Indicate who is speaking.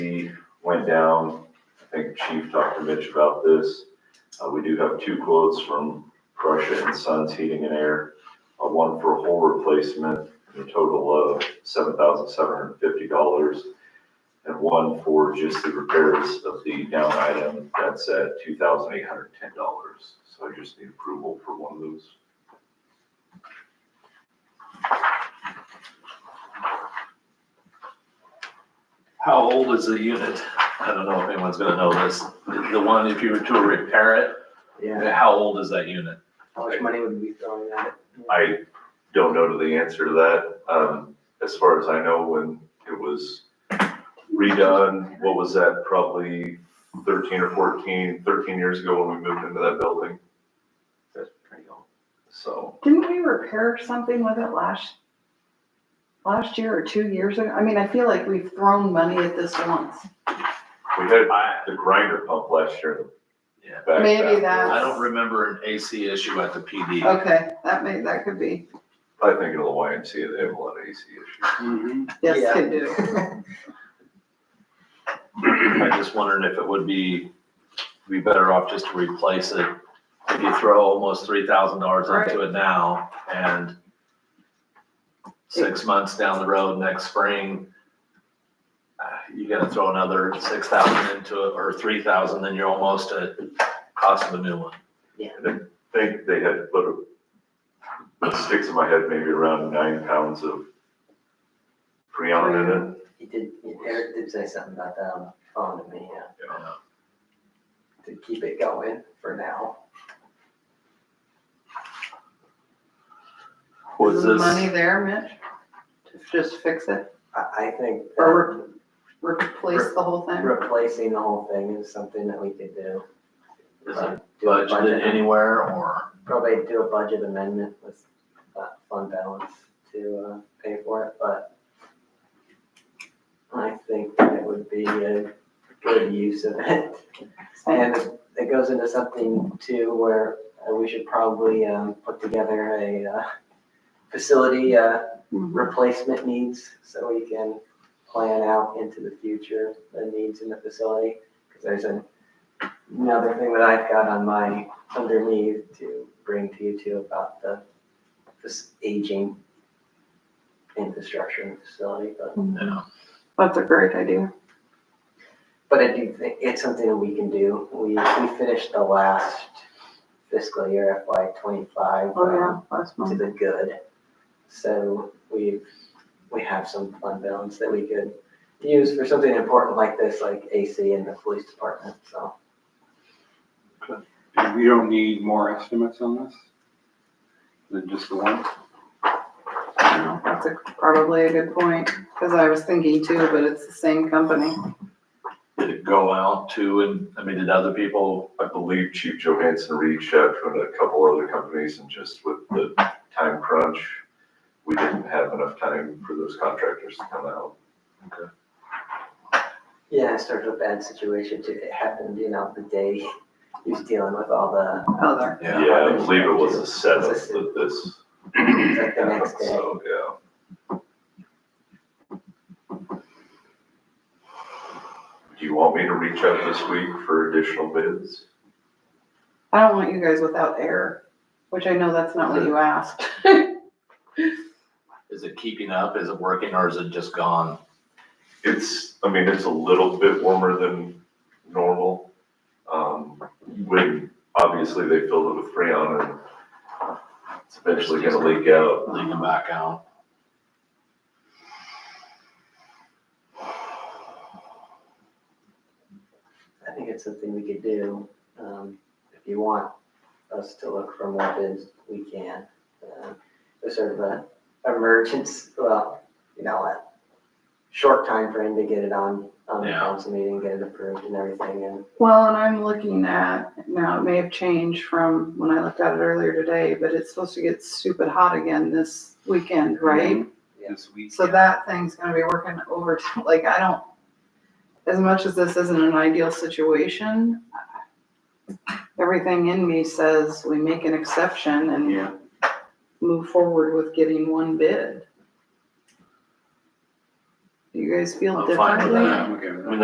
Speaker 1: went down. I think Chief talked to Mitch about this. Uh, we do have two quotes from Prussia and Sons Heating and Air. Uh, one for a whole replacement, a total of seven thousand seven hundred fifty dollars. And one for just the repairs of the down item, that's at two thousand eight hundred ten dollars. So I just need approval for one of those.
Speaker 2: How old is the unit? I don't know if anyone's gonna know this. The one, if you were to repair it,
Speaker 3: Yeah,
Speaker 2: how old is that unit?
Speaker 3: how much money would we be throwing at it?
Speaker 1: I don't know the answer to that. Um, as far as I know, when it was redone, what was that, probably thirteen or 14, 13 years ago when we moved into that building,
Speaker 3: That's pretty old.
Speaker 1: so.
Speaker 4: Didn't we repair something with it last, last year or two years ago? I mean, I feel like we've thrown money at this once.
Speaker 1: We had
Speaker 2: I,
Speaker 1: the grinder pump last year.
Speaker 2: Yeah.
Speaker 1: Back back.
Speaker 4: Maybe that-
Speaker 2: I don't remember an AC issue at the PD.
Speaker 4: Okay, that may, that could be,
Speaker 1: I think of the YMCA, they have a lot of AC issues.
Speaker 2: Mm-hmm.
Speaker 4: yes,
Speaker 3: Yeah.
Speaker 4: could do.
Speaker 2: I just wondered if it would be, be better off just to replace it. If you throw almost three thousand dollars into it now and six months down the road, next spring, uh, you gotta throw another six thousand into it or three thousand, then you're almost at cost of a new one.
Speaker 1: I think they had put, a- it sticks in my head, maybe around nine pounds of freon in it.
Speaker 3: He did, Eric did say something about that on the phone to me, yeah, to keep it going for now.
Speaker 2: Was
Speaker 4: Is the
Speaker 2: this?
Speaker 4: money there, Mitch? To just fix it,
Speaker 3: I, I think that
Speaker 4: or re- replace the whole thing?
Speaker 3: replacing the whole thing is something that we could do.
Speaker 2: Is
Speaker 3: Uh,
Speaker 2: it
Speaker 3: do a
Speaker 2: budgeted anywhere or?
Speaker 3: Probably do a budget amendment with that fund balance to, uh, pay for it, but I think that it would be a good use of it. And it goes into something too where uh, we should probably um, put together a uh, facility uh,
Speaker 4: Mhm.
Speaker 3: replacement needs so we can plan out into the future the needs in the facility. Because there's an- another thing that I've got on my underneath to bring to you too about the this aging infrastructure and facility, but
Speaker 2: No.
Speaker 4: That's a great idea.
Speaker 3: But I do think it's something that we can do. We, we finished the last fiscal year FY twenty-five
Speaker 4: Oh,
Speaker 3: um,
Speaker 4: yeah, last
Speaker 3: to
Speaker 4: month.
Speaker 3: the good. So we, we have some fund balance that we could use for something important like this, like AC and the police department, so.
Speaker 5: We don't need more estimates on this than just the one?
Speaker 4: No, That's a- probably a good point, because I was thinking too, but it's the same company.
Speaker 2: Did it go out to, and, I mean, did other people,
Speaker 1: I believe Chief Johansson reached out to a couple other companies and just with the time crunch, we didn't have enough time for those contractors to come out.
Speaker 3: Yeah, it's sort of a bad situation too. It happened, you know, the day he was dealing with all the,
Speaker 4: Other,
Speaker 2: Yeah.
Speaker 1: Yeah, I believe it was the seventh that this
Speaker 3: it's like the
Speaker 1: happened,
Speaker 3: next day.
Speaker 1: so, yeah. Do you want me to reach out this week for additional bids?
Speaker 4: I don't want you guys without air, which I know that's not what you asked.
Speaker 2: is it keeping up? Is it working or is it just gone?
Speaker 1: It's, I mean, it's a little bit warmer than normal. Um, when, obviously, they filled it with freon and it's eventually gonna leak out.
Speaker 2: Leaking back out?
Speaker 3: I think it's something we could do. Um, if you want us to look for more bids, we can. Uh, It's sort of an emergence, well, you know, a short time frame to get it on, on the
Speaker 2: Yeah.
Speaker 3: council meeting, get it approved and everything and.
Speaker 4: Well, and I'm looking at, now it may have changed from when I looked at it earlier today, but it's supposed to get stupid hot again this weekend, right?
Speaker 5: This week?
Speaker 4: So that thing's gonna be working overtime, like, I don't, as much as this isn't an ideal situation, everything in me says we make an exception
Speaker 5: Yeah.
Speaker 4: and move forward with getting one bid. Do you guys feel
Speaker 2: I'm fine with
Speaker 4: differently?
Speaker 2: that.
Speaker 5: I'm okay with
Speaker 2: I mean,